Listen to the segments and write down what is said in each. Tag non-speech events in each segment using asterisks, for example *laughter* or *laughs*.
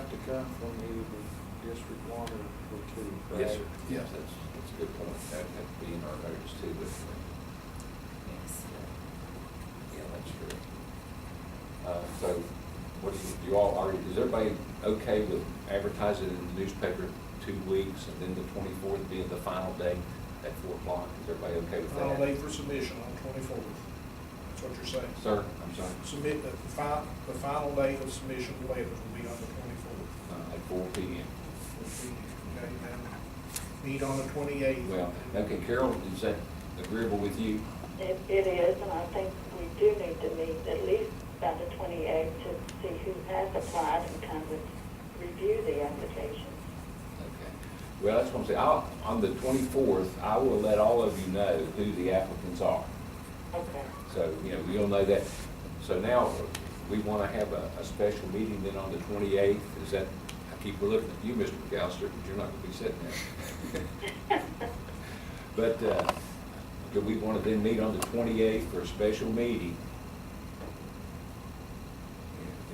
to come from either the District One or or Two, correct? Yes, sir. Yes. That's, that's a good point. That had to be in our notice too, wouldn't it? Yes. Yeah, that's true. Uh, so what do you, you all, are, is everybody okay with advertising in the newspaper two weeks and then the twenty-fourth being the final day at four o'clock? Is everybody okay with that? Final date for submission on twenty-fourth. That's what you're saying. Sir, I'm sorry. Submit, the fi, the final date of submission of letters will be on the twenty-fourth. Uh, At four P M. Okay, then meet on the twenty-eighth. Well, okay, Carol, is that agreeable with you? It, it is, and I think we do need to meet at least by the twenty-eighth to see who has applied and kind of review the applications. Okay. Well, that's what I'm saying. I'll, on the twenty-fourth, I will let all of you know who the applicants are. Okay. So, you know, you'll know that. So now, we want to have a, a special meeting then on the twenty-eighth. Is that, I keep looking at you, Mr. McAllister, because you're not going to be sitting there. But, uh, do we want to then meet on the twenty-eighth for a special meeting?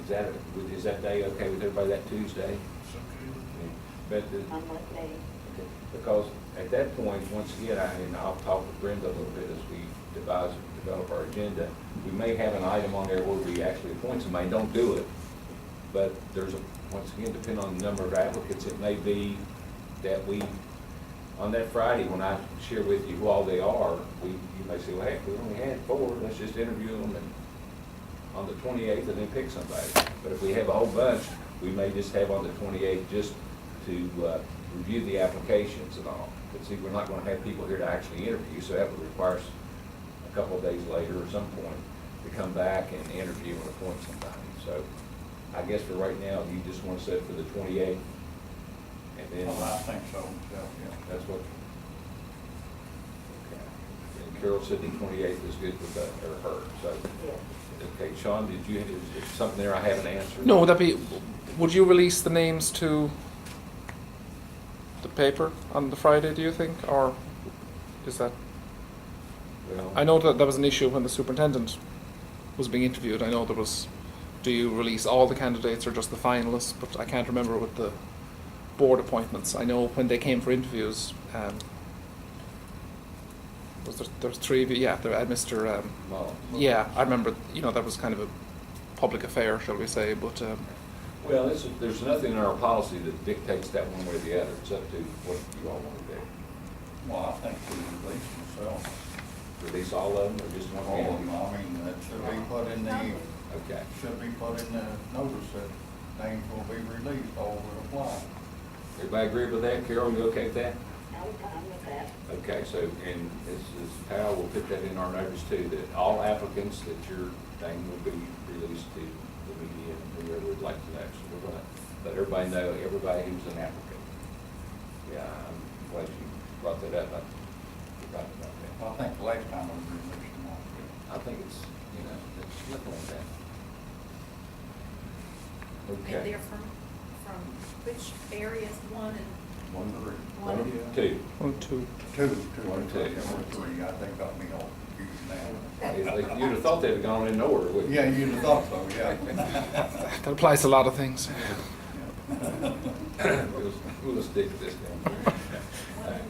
Is that, is that day okay with everybody, that Tuesday? Um, But the, I'm with me. because at that point, once again, I, and I'll talk with Brenda a little bit as we devise, develop our agenda, we may have an item on there where we actually appoint somebody, don't do it. But there's, a once again, depending on the number of applicants, it may be that we, on that Friday, when I share with you who all they are, we, you may say, well, heck, we only had four, let's just interview them and on the twenty-eighth and then pick somebody. But if we have a whole bunch, we may just have on the twenty-eighth just to uh, review the applications and all. But see, we're not gonna have people here to actually interview, so that would require us a couple of days later or some point to come back and interview and appoint somebody. So I guess for right now, you just wanna set for the twenty-eighth and then. Well, Oh, I think so, Yeah, yeah. that's what. Okay. And Carol said the twenty-eighth is good with that, or her, so. Yes. Okay, Sean, did you, is there something there I haven't answered? No, would that be, would you release the names to the paper on the Friday, do you think, or is that? Well, I know that that was an issue when the superintendent was being interviewed, I know there was, do you release all the candidates or just the finalists, but I can't remember with the board appointments, I know when they came for interviews, um, was there, there was three of you, yeah, there, I had Mr., um, Mullins. yeah, I remember, you know, that was kind of a public affair, shall we say, but, um, Well, it's, there's nothing in our policy that dictates that one way or the other. It's up to what you all want to do. Well, I think we release myself, Release all of them or just one? all of them, I mean, that should be put in the, Okay. should be put in the notice that names will be released, all will apply. Everybody agree with that? Carol, you okay with that? I'm fine with that. Okay, so, and this is how we'll put that in our notice too, that all applicants that your thing will be released to the media and whoever would like to know. So we're gonna let everybody know, everybody who's an applicant. Yeah, I'm glad you brought that up. I forgot about that. I think the last time we released them all. I think it's, you know, it's nothing like that. And Okay. they're from, from which areas, one and One, three. One. One, two. one, two. Two, two, One, two, two. or three, I think got me all confused It's like, You'd have thought they'd have gone in order, wouldn't now. you? Yeah, you'd have thought so, yeah. *laughs* That applies to a lot of things. We'll we'll stick to this now. one and.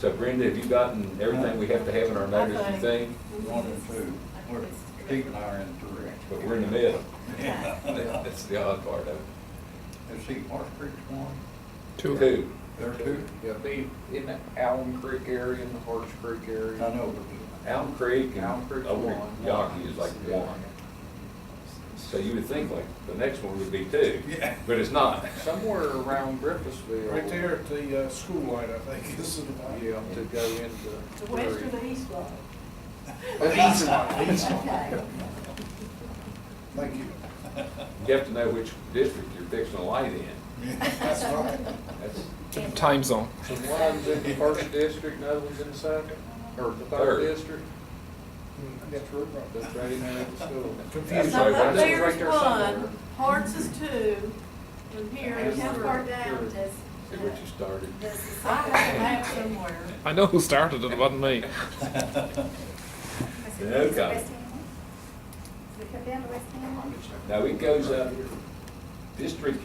So Brenda, have you gotten everything we have to have in our notice, you think? *laughs* One and two, we're, Steve and I are in three. But we're in the middle. Yeah. That- That's the odd part of it. Let's see, Marsh Creek's one, Two. Two. there are two. Yeah, be in the Allen Creek area and the Horse Creek I area. know, Elm Creek Allen and Creek's Oak one. Yawkey is like one. So you would think like the next one would be two, Yeah. but it's not. Somewhere around Griffithsville. Right there at the, uh, school light, I think, this is the. Yeah, to go into. The west or the east one? The east one, east one. Okay. Thank you. You have to know which district you're fixing a light in. *laughs* *laughs* That's *laughs* right. That's Different time zone. So one's in the first district, another one's in the second, or the Third. third district. That's right. That's right in there at the school. Confused. That's right. That's right There's there one, somewhere. Hearts is two, and here And is How far three. down does? See where you started. does the I have a map second- somewhere. I know who started it, it wasn't me. Is it West Okay. Hamlin? Does it come down to West Hamlin? Now it goes up, district